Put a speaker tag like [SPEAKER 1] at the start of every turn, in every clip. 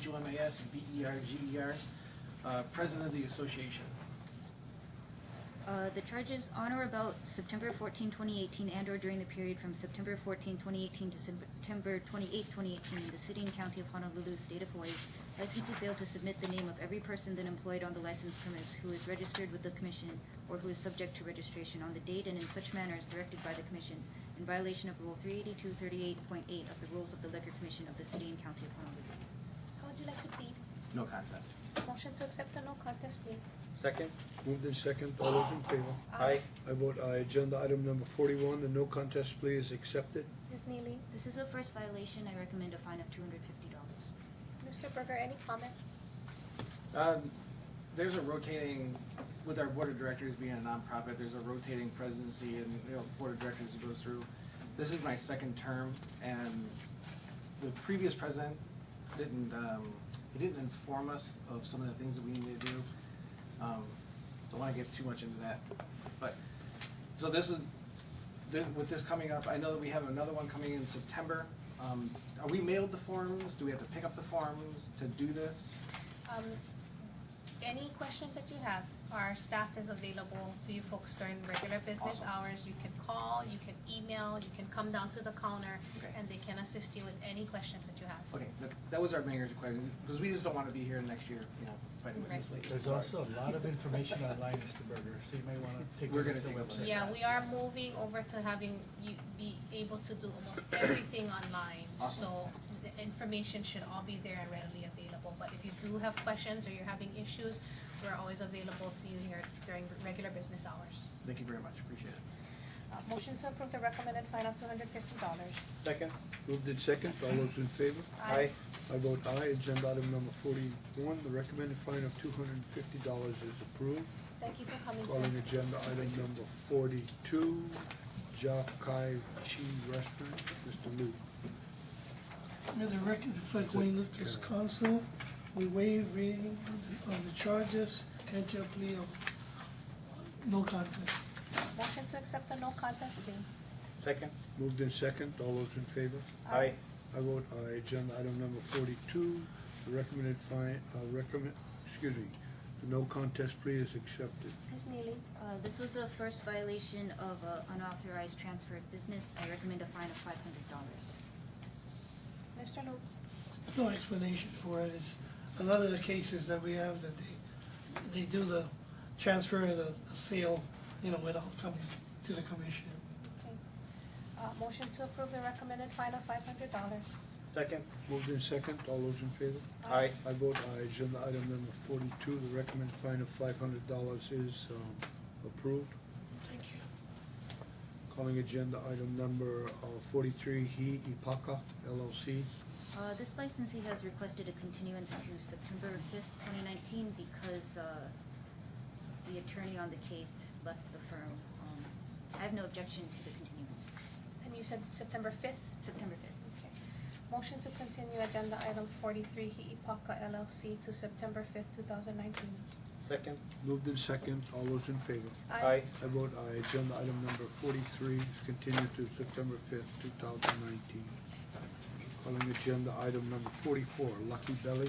[SPEAKER 1] C-H-O-M-A-S, B-E-R-G-E-R, E uh, president of the association.
[SPEAKER 2] Uh, The charges on or about September 14, 2018, and/or during the period from September 14, 2018 to September 28, 2018, in the city and county of Honolulu, state of Hawaii, licensee failed to submit the name of every person then employed on the licensed premise who is registered with the commission or who is subject to registration on the date and in such manner as directed by the commission, in violation of Rule 38238.8 of the Rules of the Liquor Commission of the city and county of Honolulu.
[SPEAKER 3] How would you like to plead?
[SPEAKER 1] No contest.
[SPEAKER 3] Motion to accept the no contest plea. Uh,
[SPEAKER 4] Second?
[SPEAKER 5] Moved in second, all those in favor?
[SPEAKER 4] Aye.
[SPEAKER 5] I vote aye. Agenda item number forty-one, the no contest plea is accepted.
[SPEAKER 3] Ms. Neely,
[SPEAKER 2] This is a first violation. I recommend a fine of $250.
[SPEAKER 3] Mr. Berger, any comment?
[SPEAKER 1] Um, There's a rotating, with our board of directors being a nonprofit, there's a rotating presidency and, you know, board of directors that goes through. This is my second term, and the previous president didn't, um, he didn't inform us of some of the things that we needed to do. Um, Don't wanna get too much into that, but, so this is, thi- with this coming up, I know that we have another one coming in September. Um, Are we mailed the forms? Do we have to pick up the forms to do this?
[SPEAKER 3] Um, any questions that you have, our staff is available to you folks during regular business
[SPEAKER 1] Awesome.
[SPEAKER 3] hours. You can call, you can email, you can come down to the counter,
[SPEAKER 1] Okay.
[SPEAKER 3] and they can assist you with any questions that you have.
[SPEAKER 1] Okay, that, that was our mayor's question, because we just don't wanna be here next year, you know, fighting with this lady.
[SPEAKER 6] There's
[SPEAKER 1] Sorry.
[SPEAKER 6] also a lot of information online, Mr. Berger, so you may want to take a
[SPEAKER 1] We're
[SPEAKER 6] look
[SPEAKER 1] gonna
[SPEAKER 6] at the
[SPEAKER 1] take a look.
[SPEAKER 6] website.
[SPEAKER 3] Yeah, we are moving over to having you be able to do almost everything online.
[SPEAKER 1] Awesome.
[SPEAKER 3] So the information should all be there and readily available. But if you do have questions or you're having issues, we're always available to you here during regular business hours.
[SPEAKER 1] Thank you very much, appreciate it.
[SPEAKER 3] Uh, Motion to approve the recommended fine of two hundred fifty dollars.
[SPEAKER 4] Second?
[SPEAKER 5] Moved in second, all those in favor?
[SPEAKER 4] Aye.
[SPEAKER 5] I vote aye. Agenda item number forty-one, the recommended fine of two hundred and fifty dollars is approved.
[SPEAKER 3] Thank you for coming, sir.
[SPEAKER 5] Calling agenda item number forty-two, Jakai Chi Restaurant, Mr. Lu.
[SPEAKER 7] May the record reflect Wayne Lucas, counsel. We waive reading on the charges, enter plea of no contest.
[SPEAKER 3] Motion to accept the no contest plea.
[SPEAKER 4] Second?
[SPEAKER 5] Moved in second, all those in favor?
[SPEAKER 4] Aye.
[SPEAKER 5] I vote aye. Agenda item number forty-two, the recommended fine, uh, recommend, excuse me, the no contest plea is accepted.
[SPEAKER 3] Ms. Neely,
[SPEAKER 2] Uh, This was a first violation of uh, unauthorized transfer of business. I recommend a fine of five hundred dollars.
[SPEAKER 3] Mr. Luke.
[SPEAKER 7] No explanation for it. It's a lot of the cases that we have that they, they do the transfer and the sale, you know, without coming to the commission.
[SPEAKER 3] Okay. Uh, motion to approve the recommended fine of five hundred dollars.
[SPEAKER 4] Second?
[SPEAKER 5] Moved in second, all those in favor?
[SPEAKER 4] Aye.
[SPEAKER 5] I vote aye. Agenda item number forty-two, the recommended fine of five hundred dollars is, um, approved.
[SPEAKER 7] Thank you.
[SPEAKER 5] Calling agenda item number, uh, forty-three, He Ipaka LLC.
[SPEAKER 2] Uh, This licensee has requested a continuance to September fifth, twenty nineteen, because uh, the attorney on the case left the firm. Um, I have no objection to the continuance.
[SPEAKER 3] And you said September fifth?
[SPEAKER 2] September fifth.
[SPEAKER 3] Okay. Motion to continue agenda item forty-three, Hiipaka LLC to September fifth, two thousand nineteen.
[SPEAKER 4] Second?
[SPEAKER 5] Moved in second, all those in favor? I vote aye. Agenda item number forty-three is continued to September fifth, two thousand nineteen. Calling agenda item number forty-four, Lucky Belly.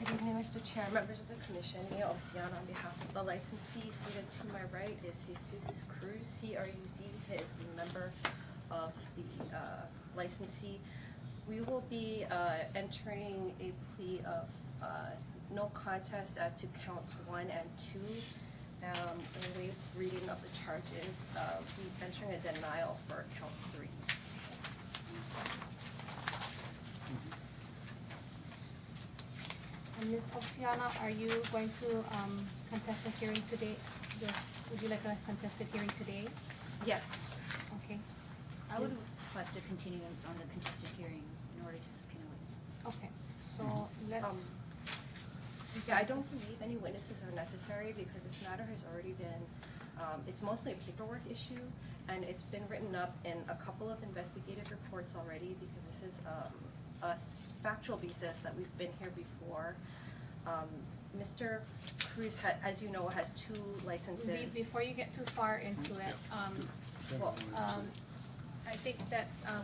[SPEAKER 8] Good evening, Mr. Chair, members of the commission, Mia Oceana on behalf of the licensee. Seated to my right is Jesus Cruz, C R U Z. He is the member of the uh, licensee. We will be uh, entering a plea of uh, no contest as to counts one and two. Um, And waive reading of the charges. Uh, We're entering a denial for count three.
[SPEAKER 3] And Ms. Oxiana, are you going to, um, contest the hearing today? Your- Would you like a contested hearing today?
[SPEAKER 8] Yes.
[SPEAKER 3] Okay,
[SPEAKER 2] I would request a continuance on the contested hearing in order to subpoena witnesses.
[SPEAKER 3] okay, so let's,
[SPEAKER 8] Um, Yeah, I don't believe any witnesses are necessary because this matter has already been, um, it's mostly a paperwork issue, and it's been written up in a couple of investigative reports already because this is um, a s- factual basis that we've been here before. Um, Mr. Cruz, ha- as you know, has two licenses.
[SPEAKER 3] be- before you get too far into it, um,
[SPEAKER 8] Well,
[SPEAKER 3] um, I think that, um,